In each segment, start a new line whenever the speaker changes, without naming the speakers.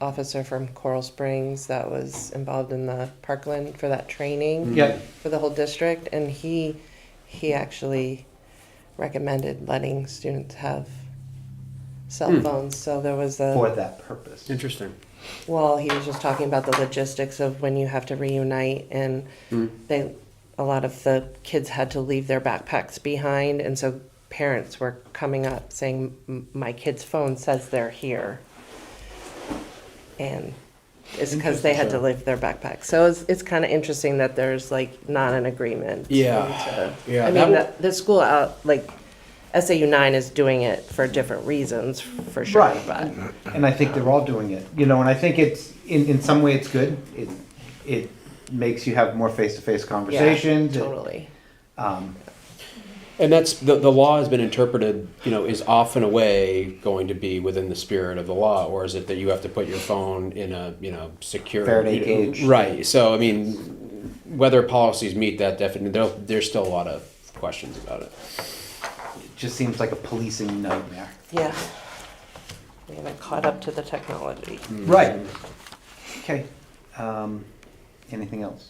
officer from Coral Springs that was involved in the Parkland for that training
Mm-hmm. Yep.
for the whole district, and he he actually recommended letting students have cell
Hmm.
phones. So there was a
for that purpose.
Interesting.
Well, he was just talking about the logistics of when you have to reunite, and
Mm.
they a lot of the kids had to leave their backpacks behind, and so parents were coming up saying, "M- "My kid's phone says they're here," and it's because they had to
Interesting.
leave their backpacks. So it's it's kind of interesting that there's like not an agreement.
Yeah.
into-
Yeah,
I
that
mean,
w-
the, the school out like. SAU nine is doing it for different reasons, for sure.
Right.
But
And I think they're all doing it, you know, and I think it's, in, in some way, it's good. It, it makes you have more face-to-face conversations.
yeah,
It,
totally.
Um,
And that's the, the law has been interpreted, you know, is off and away going to be within the spirit of the law, or is it that you have to put your phone in a you know secure
Faraday
you know,
cage.
Right. So I mean, whether policies meet that definition, there, there's still a lot of questions about it.
it just seems like a policing nightmare.
Yeah. We haven't caught up to the technology.
Right. Okay. Um, anything else?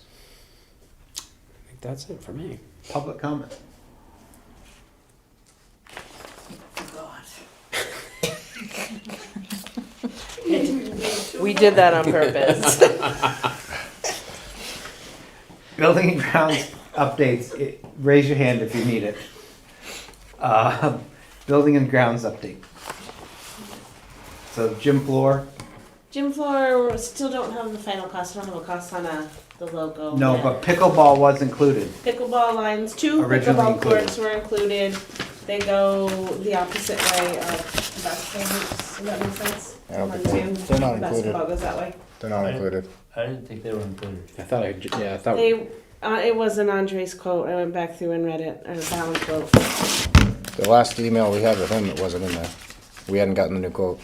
I think that's it for me.
Public comment?
We did that on purpose.
Building and grounds updates, it- raise your hand if you need it. Uh, Building and grounds update. So gym floor,
Gym floor, still don't have the final cost, I don't have a cost on uh, the logo.
no,
yet.
but pickleball was included.
Pickleball lines, two
Originally
pickleball
included.
courts were included, they go the opposite way of basketball hoops, does that make sense?
I don't
On
think they're-
Zoom,
they're not included.
Basketball goes that way.
They're not included.
I didn't think they were included.
I thought I j- yeah I thought
They, uh, it was an Andres quote, I went back through and read it, or Fallon quote.
The last email we had with him, it wasn't in there. We hadn't gotten the new quote.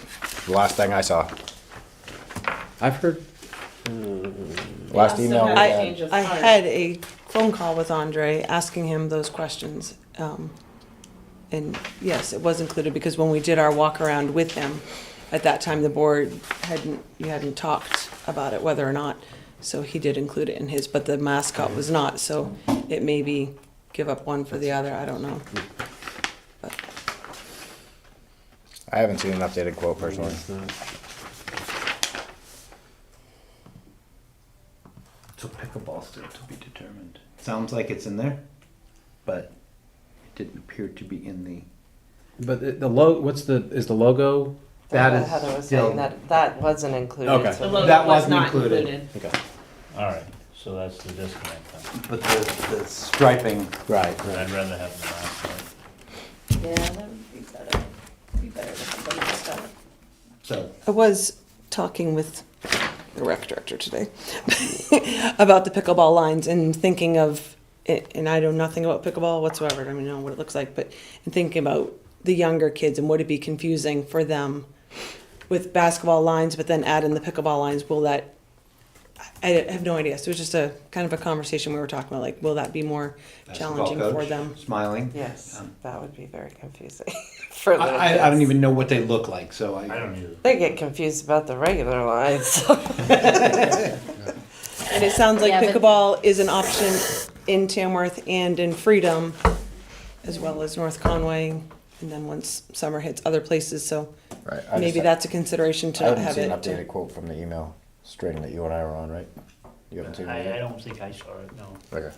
The last thing I saw.
I've heard
Last
Still
email we
have a change
had.
of
I
heart.
had a phone call with Andre asking him those questions. Um, and yes, it was included because when we did our walk around with him, at that time the board hadn't, you hadn't talked about it whether or not. So he did include it in his, but the mascot was not, so it may be give up one for the other, I don't know.
I haven't seen an updated quote personally.
it's not.
So pickleball still to be determined. Sounds like it's in there, but it didn't appear to be in the.
But the, the lo what's the is the logo?
That is
Heather was
still-
saying that, that wasn't included.
Okay.
so-
The logo
That
was
wasn't
not
included.
included.
Okay.
All right, so that's the disconnect. then.
But the, the striping.
Right. Right.
I'd rather have the last one.
Yeah, that would be better. Be better if somebody else got it.
So
I was talking with the rec director today about the pickleball lines and thinking of, and I know nothing about pickleball whatsoever. I don't even know what it looks like, but and thinking about the younger kids and would it be confusing for them with basketball lines, but then add in the pickleball lines? Will that? I I have no idea. So it was just a kind of a conversation we were talking about. Like, will that be more challenging
Basketball
for
coach
them?
Smiling.
Yes,
Um,
that would be very confusing for little
I, I, I don't
kids.
even know what they look like, so I.
I don't either.
They get confused about the regular lines.
And it sounds like
Yeah, but-
pickleball is an option in Tamworth and in Freedom, as well as North Conway, and then once summer hits, other places, so
Right. I
maybe
just-
that's a consideration to
I
not
haven't
have
seen an updated
it. to-
quote from the email string that you and I were on, right? You haven't seen
I, I
it
don't think I saw it, no.
yet? Okay.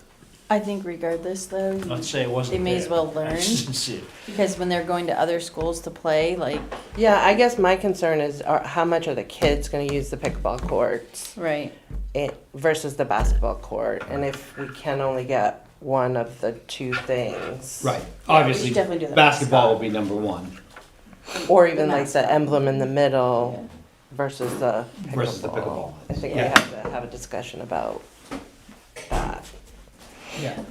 I think regardless though, you-
Let's say it wasn't
They may as
there.
well learn.
I didn't see it.
because when they're going to other schools to play, like,
Yeah, I guess my concern is are, how much are the kids gonna use the pickleball courts
right,
i- versus the basketball court? And if we can only get one of the two things.
Right. Obviously,
should definitely do that.
basketball will be number one
Or even like
mascot.
the emblem in the middle versus the pickleball.
versus the pickleball.
I think we
Yeah.
have to have a discussion about that.
Yeah.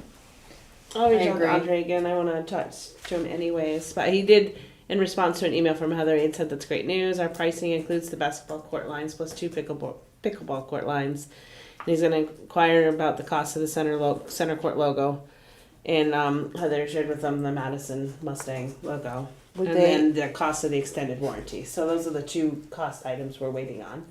I'll reach
I
out
agree.
to Andre again. I want to talk to him anyways. But he did, in response to an email from Heather, he had said that's great news. Our pricing includes the basketball court lines plus two pickleball pickleball court lines. And he's going to inquire about the cost of the center lo- center court logo. And um, Heather shared with them the Madison Mustang logo.
Would
and
they-
then the cost of the extended warranty. So those are the two cost items we're waiting on.